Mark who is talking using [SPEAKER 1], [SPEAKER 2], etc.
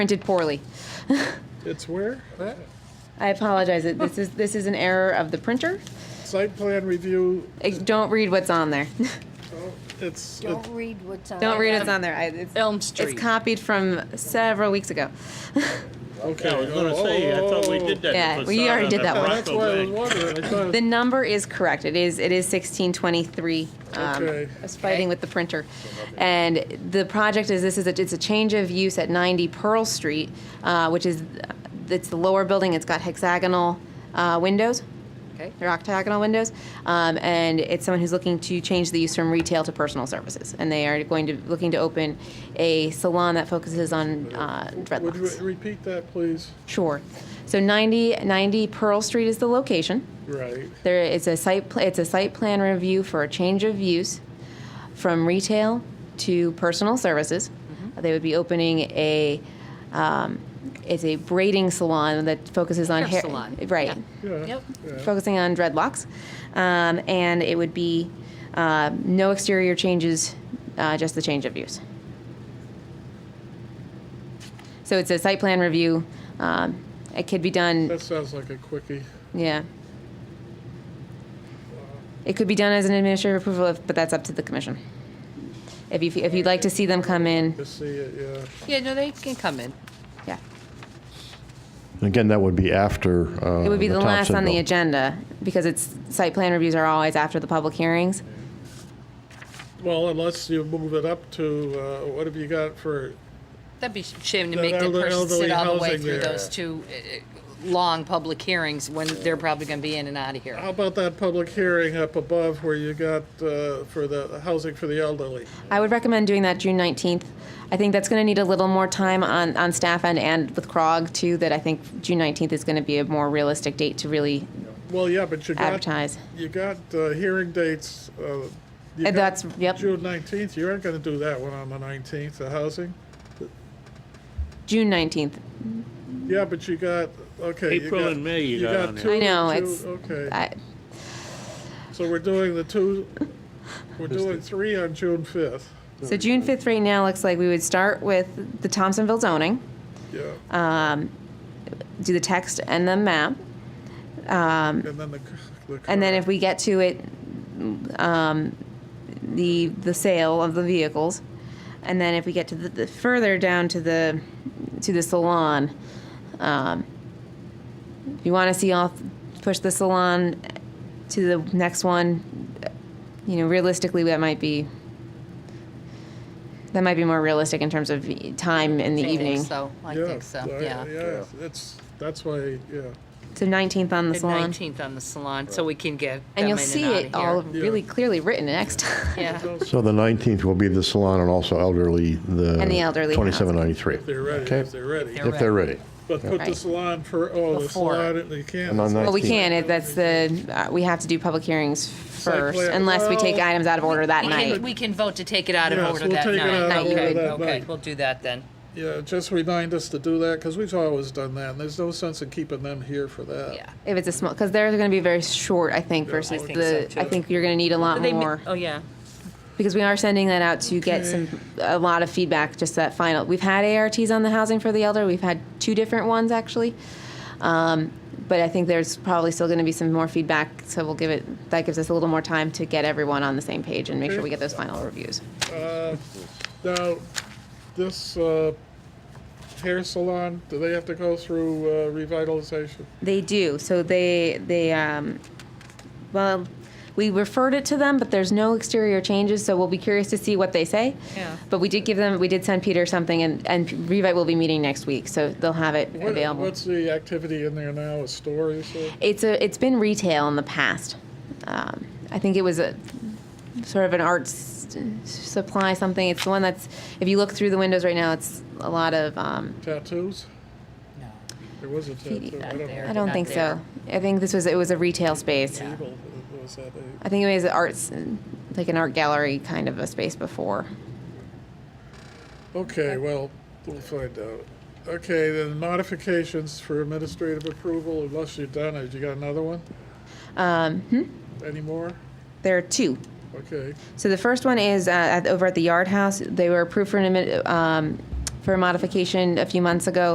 [SPEAKER 1] printed poorly.
[SPEAKER 2] It's where? That?
[SPEAKER 1] I apologize. It- This is, this is an error of the printer.
[SPEAKER 2] Site plan review,
[SPEAKER 1] Eh, Don't read what's on there.
[SPEAKER 2] it's,
[SPEAKER 3] Don't read what's on.
[SPEAKER 1] Don't read
[SPEAKER 3] it.
[SPEAKER 1] what's on there. I- it's-
[SPEAKER 4] Elm
[SPEAKER 1] It's
[SPEAKER 4] Street.
[SPEAKER 1] copied from several weeks ago.
[SPEAKER 2] okay.
[SPEAKER 5] Yeah, I was gonna say, uh, I thought we did that.
[SPEAKER 1] Yeah,
[SPEAKER 5] facade
[SPEAKER 1] we already
[SPEAKER 5] on
[SPEAKER 1] did
[SPEAKER 5] the
[SPEAKER 1] that
[SPEAKER 2] Oh,
[SPEAKER 1] one.
[SPEAKER 5] Bronco
[SPEAKER 2] That's why I was
[SPEAKER 5] Bank.
[SPEAKER 2] wondering, I thought,
[SPEAKER 1] The number is correct. It is, it is 1623. Um, I
[SPEAKER 2] Okay.
[SPEAKER 1] was fighting with the printer. And the project is, this is, a- it's a change of use at 90 Pearl Street, uh, which is, it's the lower building. It's got hexagonal uh, windows.
[SPEAKER 4] Okay.
[SPEAKER 1] They're octagonal windows, um, and it's someone who's looking to change the use from retail to personal services, and they are going to looking to open a salon that focuses on uh,
[SPEAKER 2] would you
[SPEAKER 1] dreadlocks.
[SPEAKER 2] repeat that, please?
[SPEAKER 1] Sure. So 90, 90 Pearl Street is the location.
[SPEAKER 2] Right,
[SPEAKER 1] There is a site pl- it's a site plan review for a change of use from retail to personal services. They would be opening a um, it's a braiding salon that focuses on
[SPEAKER 4] Hair salon.
[SPEAKER 1] right?
[SPEAKER 2] yeah.
[SPEAKER 4] Yep.
[SPEAKER 1] focusing on dreadlocks. Um, and it would be uh, no exterior changes, uh, just the change of use. So it's a site plan review. Um, it could be done,
[SPEAKER 2] That sounds like a quickie.
[SPEAKER 1] yeah. It could be done as an administrative approval, if, but that's up to the commission. If you if you'd like to see them come in,
[SPEAKER 2] To see it,
[SPEAKER 4] Yeah, no, they can come in.
[SPEAKER 1] yeah,
[SPEAKER 6] Again, that would be after. uh,
[SPEAKER 1] it would be the, last on the
[SPEAKER 6] agenda.
[SPEAKER 1] agenda because it's site plan reviews are always after the public hearings.
[SPEAKER 2] yeah. Well, unless you move it up to, uh, what have you got for,
[SPEAKER 4] That'd be a shame to
[SPEAKER 2] That
[SPEAKER 4] make that
[SPEAKER 2] elder-
[SPEAKER 4] person sit
[SPEAKER 2] elderly
[SPEAKER 4] all the way
[SPEAKER 2] housing
[SPEAKER 4] through
[SPEAKER 2] there.
[SPEAKER 4] those two uh, uh, long public hearings when they're probably going to be in and out of here.
[SPEAKER 2] how about that public hearing up above where you got uh, for the housing for the elderly?
[SPEAKER 1] I would recommend doing that June 19th. I think that's going to need a little more time on, on staff end and with CROG too, that I think June 19th is going to be a more realistic date to really
[SPEAKER 2] Well, yeah, but you got,
[SPEAKER 1] advertise.
[SPEAKER 2] you got uh, hearing dates. uh, you
[SPEAKER 1] And
[SPEAKER 2] got
[SPEAKER 1] that's- yep.
[SPEAKER 2] June 19th, you aren't going to do that one on the 19th, the housing?
[SPEAKER 1] June 19th.
[SPEAKER 2] Yeah, but you got, okay. you
[SPEAKER 5] April
[SPEAKER 2] got-
[SPEAKER 5] and May you got on there.
[SPEAKER 2] two-
[SPEAKER 1] I know,
[SPEAKER 2] two-
[SPEAKER 1] it's-
[SPEAKER 2] Okay,
[SPEAKER 1] I-
[SPEAKER 2] so we're doing the two, we're doing three on June fifth.
[SPEAKER 1] So June 5th right now looks like we would start with the Thompsonville zoning,
[SPEAKER 2] Yeah,
[SPEAKER 1] do the text and the map.
[SPEAKER 2] and then the. c- the
[SPEAKER 1] And then
[SPEAKER 2] car.
[SPEAKER 1] if we get to it, um, the, the sale of the vehicles. And then if we get to the, the further down to the, to the salon, um, if you want to see all, push the salon to the next one, you know, realistically, that might be, that might be more realistic in terms of time in the
[SPEAKER 4] I think
[SPEAKER 1] evening.
[SPEAKER 4] So, I
[SPEAKER 2] Yeah,
[SPEAKER 4] think so,
[SPEAKER 2] I-
[SPEAKER 4] yeah.
[SPEAKER 2] Yeah, that's, that's why, yeah,
[SPEAKER 1] So 19th on the
[SPEAKER 4] The
[SPEAKER 1] salon.
[SPEAKER 4] 19th on the salon, so we can get them
[SPEAKER 1] And
[SPEAKER 4] in
[SPEAKER 1] you'll
[SPEAKER 4] and
[SPEAKER 1] see
[SPEAKER 4] out
[SPEAKER 1] it
[SPEAKER 4] of here.
[SPEAKER 1] all really clearly written next time.
[SPEAKER 4] Yeah,
[SPEAKER 6] So the 19th will be the salon and also elderly, the.
[SPEAKER 1] And the elderly housing.
[SPEAKER 6] 2793.
[SPEAKER 2] if they're ready,
[SPEAKER 6] Okay.
[SPEAKER 2] if they're ready.
[SPEAKER 4] They're
[SPEAKER 6] If they're ready.
[SPEAKER 2] But put the
[SPEAKER 1] Right.
[SPEAKER 2] salon for, oh, the
[SPEAKER 4] Before.
[SPEAKER 2] salon, you can't.
[SPEAKER 6] And on
[SPEAKER 1] Well, we
[SPEAKER 6] 19th.
[SPEAKER 1] can, if that's the, uh, we have to do public hearings first,
[SPEAKER 2] plan.
[SPEAKER 1] unless we take
[SPEAKER 2] Well-
[SPEAKER 1] items out of order that
[SPEAKER 4] we can,
[SPEAKER 1] night.
[SPEAKER 4] we can vote to take it out of
[SPEAKER 2] Yes,
[SPEAKER 4] order
[SPEAKER 2] we'll
[SPEAKER 4] that
[SPEAKER 2] take it
[SPEAKER 4] night.
[SPEAKER 2] out
[SPEAKER 1] of order
[SPEAKER 4] Okay,
[SPEAKER 2] that
[SPEAKER 4] okay,
[SPEAKER 2] night.
[SPEAKER 4] we'll do that then.
[SPEAKER 2] Yeah, just remind us to do that, because we've always done that, and there's no sense in keeping them here for that.
[SPEAKER 4] Yeah.
[SPEAKER 1] If it's a small, because they're gonna be very short, I think, versus
[SPEAKER 4] think
[SPEAKER 1] the,
[SPEAKER 4] so,
[SPEAKER 1] I
[SPEAKER 4] too.
[SPEAKER 1] think you're gonna need a lot
[SPEAKER 4] They ma-
[SPEAKER 1] more.
[SPEAKER 4] Oh, yeah.
[SPEAKER 1] Because we are sending that out to get some, a lot of feedback, just that final. We've had ARTs on the housing for the elder, we've had two different ones, actually. Um, But I think there's probably still gonna be some more feedback, so we'll give it, that gives us a little more time to get everyone on the same page and make sure we get those final reviews.
[SPEAKER 2] Now, this uh, hair salon, do they have to go through uh, revitalization?
[SPEAKER 1] They do. So they they um, well, we referred it to them, but there's no exterior changes. So we'll be curious to see what they say.
[SPEAKER 4] Yeah.
[SPEAKER 1] But we did give them. We did send Peter something, and and Revite will be meeting next week, so they'll have it
[SPEAKER 2] What-
[SPEAKER 1] available.
[SPEAKER 2] What's the activity in there now, a store, you said?
[SPEAKER 1] it's a it's been retail in the past. Um, I think it was a sort of an arts supply something. It's the one that's if you look through the windows right now, it's a lot of. Um,
[SPEAKER 2] Tattoos? There was a tattoo. I don't
[SPEAKER 4] there.
[SPEAKER 2] know.
[SPEAKER 1] I don't
[SPEAKER 4] Not
[SPEAKER 1] think
[SPEAKER 4] there.
[SPEAKER 1] so. I think this was it was a retail space.
[SPEAKER 2] Evil, uh, was that a-
[SPEAKER 1] I think it was arts, like an art gallery kind of a space before.
[SPEAKER 2] Okay, well, we'll find out. Okay, then modifications for administrative approval, unless you're done, have you got another one? Um, hmm? Any more?
[SPEAKER 1] There are two.
[SPEAKER 2] Okay,
[SPEAKER 1] So the first one is uh, at, over at the Yard House. They were approved for an admi- um, for a modification a few months ago